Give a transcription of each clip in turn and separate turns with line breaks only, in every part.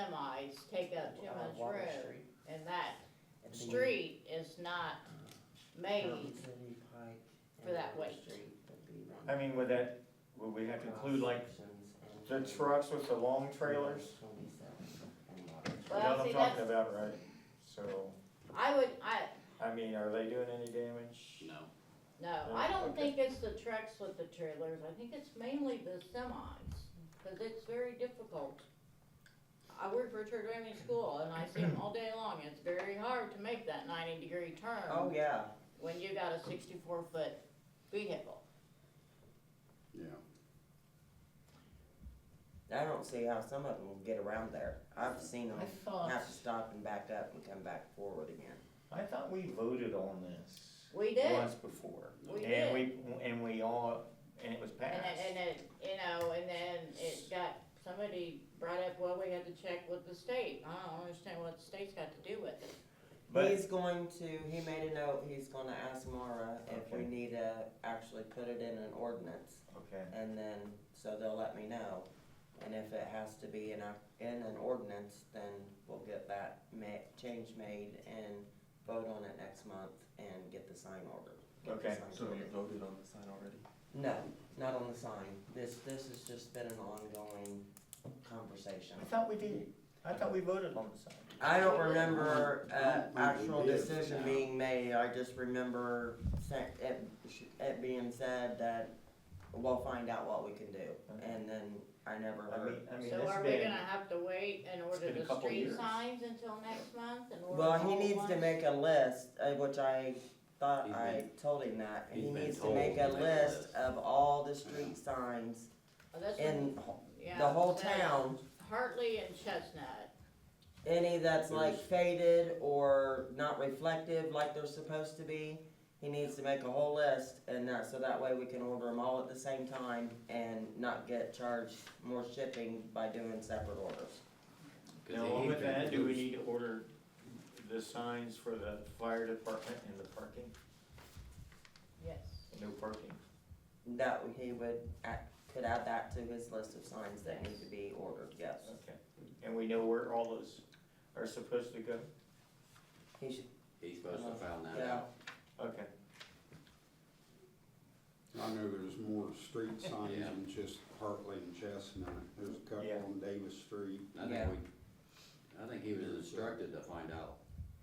semis take up Timmons
Uh, Water
Road,
Street.
and that
And then
street is not made
Mountain City Pike
for
and
that
Water
weight.
Street would be one.
I mean, would that, would we have to include like
Cross-sections and
the trucks with the long trailers?
Twenty-seven and Water Street.
You know
Well,
what I'm
see,
talking
that's-
about, right? So,
I would, I,
I mean, are they doing any damage?
No,
no, I don't think it's the trucks with the trailers, I think it's mainly the semis, cause it's very difficult. I work for a church driving school, and I see them all day long, it's very hard to make that ninety degree turn.
Oh, yeah,
when you got a sixty-four foot vehicle.
yeah.
I don't see how some of them will get around there. I've seen them
I thought,
have to stop and back up and come back forward again.
I thought we voted on this
We did,
once before.
we
And
did.
we, and we all, and it was
And
passed.
it, and it, you know, and then it got, somebody brought up, well, we had to check with the state. I don't understand what the state's got to do with it.
But-
He's going to, he made a note, he's gonna ask Mara if we
Okay.
need to actually put it in an ordinance.
Okay,
And then, so they'll let me know. And if it has to be in a, in an ordinance, then we'll get that ma- change made and vote on it next month and get the sign ordered. Get the
Okay.
sign
So you
ordered.
voted on the sign already?
No, not on the sign. This, this has just been an ongoing conversation.
I thought we did. I thought we voted on the sign.
I don't remember uh,
I don't think
actual
we did.
decision being made, I just remember sa- it, it being said that we'll find out what we can do, and then I never
I mean,
heard.
I mean,
So
it's
are we
been,
gonna have to wait and order
been a
the
couple
street
years.
signs until next month and order
Well, he
all at
needs to
once?
make a list, uh, which I thought
He's
I told him that,
he's
he
been
needs to
told
make
to
a
make a
list
list.
of all the street signs
Oh, that's
in
what- yeah,
the whole
so
town.
Hartley and Chestnut.
Any that's like
There's-
faded or not reflective like they're supposed to be, he needs to make a whole list and that, so that way we can order them all at the same time and not get charged more shipping by doing separate orders.
'Cause
now,
they
along
hate
with that, do we
lose-
need to order the signs for the fire department and the parking?
Yes.
No parking.
That he would, add- could add that to his list of signs that need to be ordered, yes.
Okay. And we know where all those are supposed to go?
He should,
He's supposed to find that
Uh, yeah,
out.
Okay.
I know there's more street signs
Yeah.
than just Hartley and Chestnut. There's a couple
Yeah.
on Davis Street.
I
Yeah.
think we, I think he was instructed to find out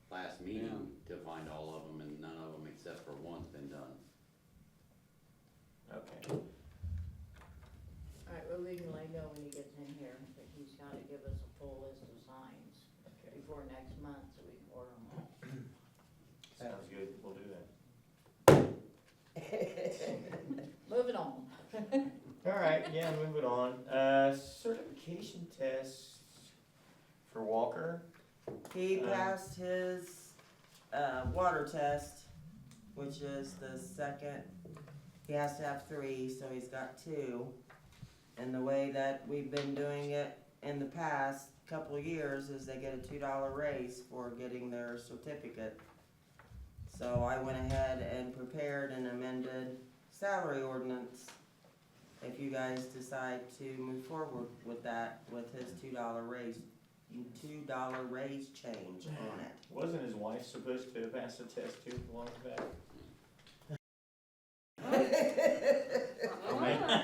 last meeting, to find all of them, and none of them except for one's been done.
Okay.
Alright, well, we can let go when he gets in here, but he's gotta give us a full list of signs
Okay.
before next month, so we can order them all.
Sounds good. We'll do that.
Moving on.
All right, yeah, moving on. Uh, certification tests for Walker.
he
Um,
passed his, uh, water test, which is the second, he has to have three, so he's got two. And the way that we've been doing it in the past couple of years is they get a two dollar raise for getting their certificate. So I went ahead and prepared an amended salary ordinance. If you guys decide to move forward with that, with his two dollar raise, two dollar raise change on it.
Wasn't his wife supposed to have passed the test too long back?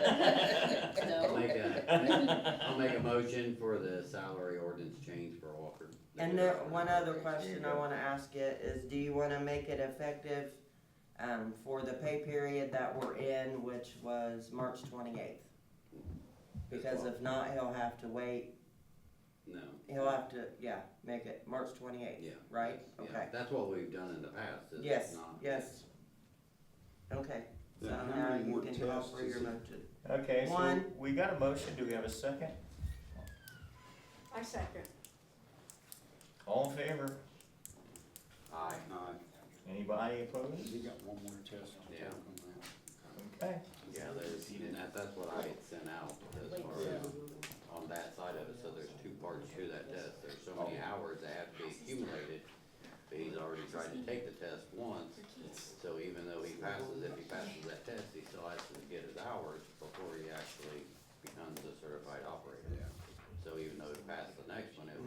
I'll
No,
make a, I'll make a motion for the salary ordinance change for Walker.
And there, one other question I
There you go.
wanna ask you is, do you wanna make it effective, um, for the pay period that we're in, which was March twenty-eighth? Because if not, he'll have to wait, he'll
No,
have to, yeah, make it March twenty-eighth,
yeah.
right?
yeah.
Okay.
That's what we've done in the past, is
Yes,
not.
yes. okay, so
Now, how
now
many
you
more
can call
tests
for
is
your
it?
motion.
Okay, so
One.
we got a motion. Do we have a second?
I second.
All in favor?
Aye.
Uh,
Anybody opposed?
He got one more test to take
Yeah.
on that.
Okay.
Yeah, there's, and that, that's what I had sent out as far as on that side of it, so there's two parts to that test, there's so many hours that have to be accumulated. But he's already tried to take the test once, so even though he passes, if he passes that test, he still has to get his hours before he actually becomes a certified operator.
Yeah.
So even though he passed the